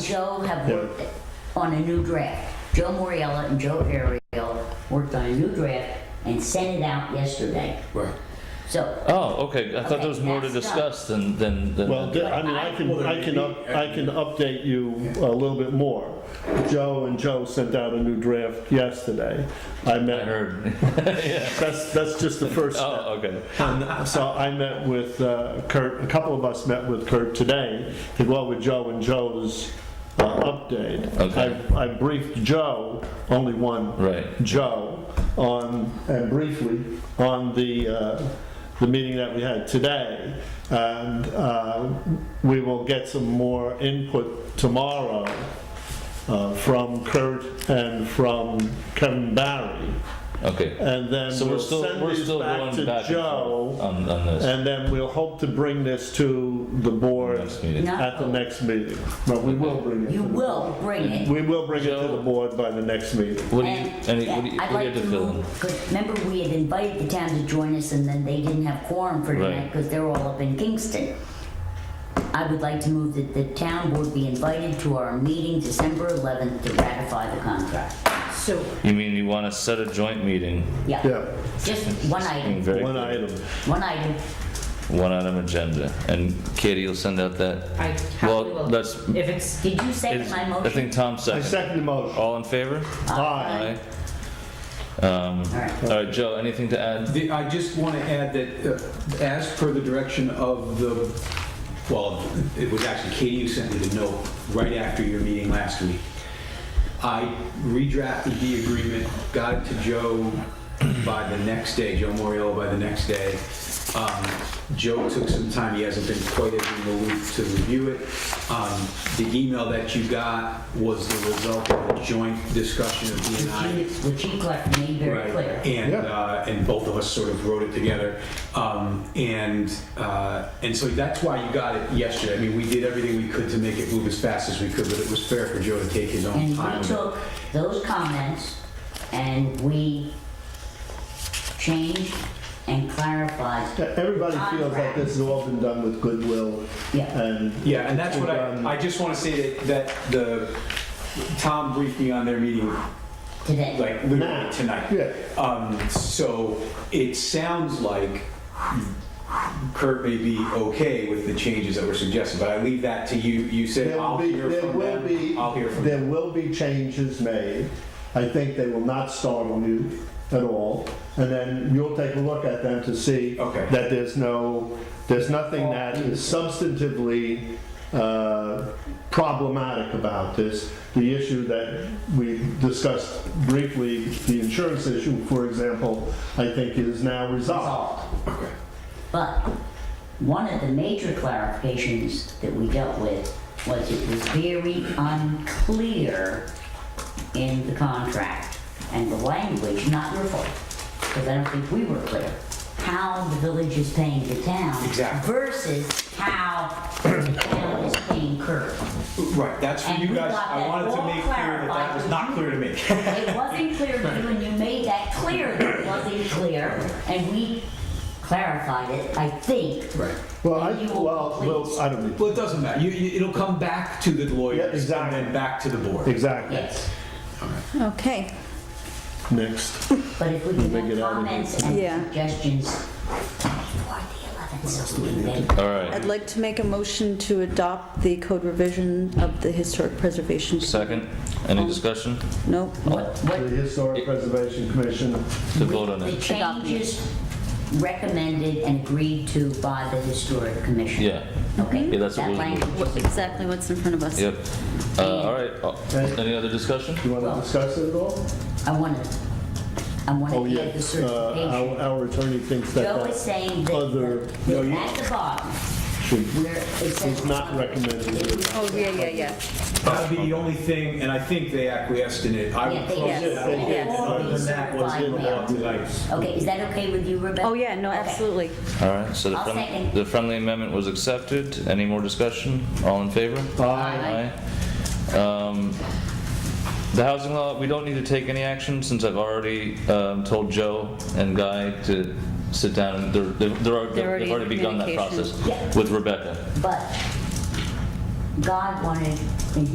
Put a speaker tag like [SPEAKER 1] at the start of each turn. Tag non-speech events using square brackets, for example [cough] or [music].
[SPEAKER 1] Joe have worked on a new draft. Joe Moriella and Joe Ariel worked on a new draft and sent it out yesterday.
[SPEAKER 2] Right.
[SPEAKER 1] So,
[SPEAKER 3] Oh, okay, I thought
[SPEAKER 1] Okay,
[SPEAKER 3] there was more to
[SPEAKER 1] that's done.
[SPEAKER 3] discuss than, than, than.
[SPEAKER 4] Well, th- I mean, I can, I can, up- I can update you a little bit more. Joe and Joe sent out a new draft yesterday. I
[SPEAKER 3] I
[SPEAKER 4] met,
[SPEAKER 3] heard. [laughs]
[SPEAKER 4] that's, that's just the first step.
[SPEAKER 3] Oh, okay.
[SPEAKER 4] And so I met with uh, Kurt, a couple of us met with Kurt today to go out with Joe and Joe's uh, update.
[SPEAKER 3] Okay.
[SPEAKER 4] I I briefed Joe, only one.
[SPEAKER 3] Right.
[SPEAKER 4] Joe, on, and briefly, on the, uh, the meeting that we had today. And uh, we will get some more input tomorrow uh, from Kurt and from Kevin Barry.
[SPEAKER 3] Okay.
[SPEAKER 4] And then
[SPEAKER 3] So we're
[SPEAKER 4] we'll
[SPEAKER 3] still,
[SPEAKER 4] send
[SPEAKER 3] we're
[SPEAKER 4] these
[SPEAKER 3] still
[SPEAKER 4] back
[SPEAKER 3] going
[SPEAKER 4] to
[SPEAKER 3] back and
[SPEAKER 4] Joe.
[SPEAKER 3] forth Uh, on, on this.
[SPEAKER 4] And then we'll hope to bring this to the board
[SPEAKER 3] Next meeting.
[SPEAKER 1] No.
[SPEAKER 4] at the next meeting. But we will bring it.
[SPEAKER 1] you
[SPEAKER 4] to the-
[SPEAKER 1] will bring it.
[SPEAKER 4] We will bring it to
[SPEAKER 3] Joe?
[SPEAKER 4] the board by the next meeting.
[SPEAKER 3] What do you,
[SPEAKER 1] And,
[SPEAKER 3] any,
[SPEAKER 1] yeah,
[SPEAKER 3] what do you,
[SPEAKER 1] I'd
[SPEAKER 3] what do you
[SPEAKER 1] like
[SPEAKER 3] have to fill in?
[SPEAKER 1] move- 'cause Remember, we had invited the town to join us, and then they didn't have quorum for tonight
[SPEAKER 3] Right.
[SPEAKER 1] because they're all up in Kingston. I would like to move that the town board be invited to our meeting December 11th to ratify the contract.
[SPEAKER 5] So,
[SPEAKER 3] You mean you want to set a joint meeting?
[SPEAKER 1] Yeah,
[SPEAKER 4] Yeah,
[SPEAKER 1] just one
[SPEAKER 3] Being
[SPEAKER 1] item,
[SPEAKER 3] very-
[SPEAKER 4] one item.
[SPEAKER 1] one item.
[SPEAKER 3] One item agenda. And Katie, you'll send out that?
[SPEAKER 5] I happily
[SPEAKER 3] Well,
[SPEAKER 5] will,
[SPEAKER 3] let's,
[SPEAKER 5] if it's,
[SPEAKER 1] Did you second
[SPEAKER 3] is-
[SPEAKER 1] my
[SPEAKER 3] I
[SPEAKER 1] motion?
[SPEAKER 3] think Tom
[SPEAKER 4] I
[SPEAKER 3] seconded.
[SPEAKER 4] second the motion.
[SPEAKER 3] All in favor?
[SPEAKER 4] Aye.
[SPEAKER 3] Um,
[SPEAKER 1] All right.
[SPEAKER 3] all right, Joe, anything to add?
[SPEAKER 2] The- I just want to add that, uh, as per the direction of the, well, it was actually Katie who sent me the note right after your meeting last week. I redrafted the agreement, got it to Joe by the next day, Joe Moriello by the next day. Um, Joe took some time, he hasn't been quite as in the loop to review it. Um, The email that you got was the result of a joint discussion of he and I.
[SPEAKER 1] Which you- Which you clear- made very
[SPEAKER 2] Right,
[SPEAKER 1] clear.
[SPEAKER 2] and,
[SPEAKER 4] Yeah.
[SPEAKER 2] uh, and both of us sort of wrote it together. Um, and, uh, and so that's why you got it yesterday. I mean, we did everything we could to make it move as fast as we could, but it was fair for Joe to take his own
[SPEAKER 1] And
[SPEAKER 2] time.
[SPEAKER 1] we
[SPEAKER 2] with it.
[SPEAKER 1] took those comments and we changed and clarified
[SPEAKER 4] Yeah, Everybody feels like this has all been done with goodwill
[SPEAKER 1] Yeah,
[SPEAKER 4] and.
[SPEAKER 2] Yeah, and that's what
[SPEAKER 4] Um,
[SPEAKER 2] I, I just want to say that, that the, Tom briefed me on their meeting
[SPEAKER 1] today.
[SPEAKER 2] like literally
[SPEAKER 4] Now.
[SPEAKER 2] tonight.
[SPEAKER 4] Yeah.
[SPEAKER 2] Um, so it sounds like Kurt may be okay with the changes that were suggested, but I leave that to you. You say,
[SPEAKER 4] There will
[SPEAKER 2] I'll
[SPEAKER 4] be,
[SPEAKER 2] hear
[SPEAKER 4] there
[SPEAKER 2] from
[SPEAKER 4] will
[SPEAKER 2] them.
[SPEAKER 4] be.
[SPEAKER 2] I'll hear from them.
[SPEAKER 4] There will be changes made. I think they will not startle you at all. And then you'll take a look at them to see
[SPEAKER 2] Okay.
[SPEAKER 4] that there's no, there's nothing
[SPEAKER 2] Well,
[SPEAKER 4] that is substantively uh, problematic about this. The issue that we discussed briefly, the insurance issue, for example, I think is now resolved.
[SPEAKER 2] Okay.
[SPEAKER 1] But one of the major clarifications that we dealt with was it was very unclear in the contract and the language, not your fault, because I don't think we were clear, how the village is paying the town.
[SPEAKER 2] Exactly.
[SPEAKER 1] Versus how the town is paying Kirk.
[SPEAKER 2] Right, that's for
[SPEAKER 1] And
[SPEAKER 2] you
[SPEAKER 1] we
[SPEAKER 2] guys.
[SPEAKER 1] got
[SPEAKER 2] I
[SPEAKER 1] that
[SPEAKER 2] wanted to
[SPEAKER 1] all
[SPEAKER 2] make clear that that was
[SPEAKER 1] clarified.
[SPEAKER 2] not clear to me. [laughs]
[SPEAKER 1] It wasn't clear to you, and you made that clear that it wasn't clear, and we clarified it, I think.
[SPEAKER 2] Right.
[SPEAKER 4] Well, I,
[SPEAKER 1] And you will
[SPEAKER 4] well,
[SPEAKER 1] complete-
[SPEAKER 4] well, I don't need
[SPEAKER 2] Well, it doesn't matter. You, you, it'll come back to the lawyers
[SPEAKER 4] Yeah, exactly.
[SPEAKER 2] and then back to the board.
[SPEAKER 4] Exactly.
[SPEAKER 1] Yes.
[SPEAKER 6] Okay,
[SPEAKER 4] Next.
[SPEAKER 1] But if we can
[SPEAKER 4] Make
[SPEAKER 1] have
[SPEAKER 4] it out of here.
[SPEAKER 1] comments and
[SPEAKER 6] Yeah.
[SPEAKER 1] suggestions before the 11th, so we may-
[SPEAKER 3] All right,
[SPEAKER 6] I'd like to make a motion to adopt the code revision of the historic preservation.
[SPEAKER 3] second, any discussion?
[SPEAKER 6] Nope.
[SPEAKER 4] Oh,
[SPEAKER 1] what,
[SPEAKER 4] The
[SPEAKER 1] what
[SPEAKER 4] Historic Preservation Commission.
[SPEAKER 3] To vote on
[SPEAKER 1] the
[SPEAKER 3] it?
[SPEAKER 1] changes recommended and agreed to by the historic commission.
[SPEAKER 3] Yeah,
[SPEAKER 1] Okay?
[SPEAKER 6] Mm-hmm.
[SPEAKER 3] Yeah, that's what
[SPEAKER 1] That
[SPEAKER 3] we'll do.
[SPEAKER 1] language
[SPEAKER 6] What-
[SPEAKER 1] is-
[SPEAKER 6] Exactly what's in front of us.
[SPEAKER 3] yep. Uh, all right, uh,
[SPEAKER 4] Okay.
[SPEAKER 3] any other discussion?
[SPEAKER 4] You want
[SPEAKER 1] Well-
[SPEAKER 4] to discuss it at all?
[SPEAKER 1] I want to, I want
[SPEAKER 4] Oh,
[SPEAKER 1] to
[SPEAKER 4] yeah,
[SPEAKER 1] add the
[SPEAKER 4] Uh,
[SPEAKER 1] certification.
[SPEAKER 4] our- our attorney thinks that
[SPEAKER 1] Joe is
[SPEAKER 4] that uh,
[SPEAKER 1] saying
[SPEAKER 4] other-
[SPEAKER 1] that
[SPEAKER 4] No,
[SPEAKER 1] that
[SPEAKER 4] you-
[SPEAKER 1] at the bottom,
[SPEAKER 4] should,
[SPEAKER 1] where it says.
[SPEAKER 4] is not recommended.
[SPEAKER 6] Oh, yeah, yeah, yeah.
[SPEAKER 2] That'll be the only thing, and I think they acquiesced in it. I
[SPEAKER 1] Yeah,
[SPEAKER 2] would
[SPEAKER 1] they
[SPEAKER 2] close
[SPEAKER 6] did.
[SPEAKER 2] it out.
[SPEAKER 6] They did.
[SPEAKER 2] Other than that, was
[SPEAKER 1] Certified
[SPEAKER 2] in
[SPEAKER 1] mail.
[SPEAKER 2] the
[SPEAKER 1] Okay, is that okay with you, Rebecca?
[SPEAKER 6] Oh, yeah, no,
[SPEAKER 1] Okay.
[SPEAKER 6] absolutely.
[SPEAKER 3] All right, so the
[SPEAKER 1] I'll
[SPEAKER 3] friendly,
[SPEAKER 1] second.
[SPEAKER 3] the friendly amendment was accepted. Any more discussion? All in favor?
[SPEAKER 1] Aye.
[SPEAKER 3] Aye. Um, The housing law, we don't need to take any action since I've already um, told Joe and Guy to sit down. and They're, they're- they're, already-
[SPEAKER 6] They're already
[SPEAKER 3] they've already
[SPEAKER 6] in
[SPEAKER 3] begun that process
[SPEAKER 6] communication.
[SPEAKER 1] Yeah.
[SPEAKER 3] with Rebecca.
[SPEAKER 1] But God wanted, and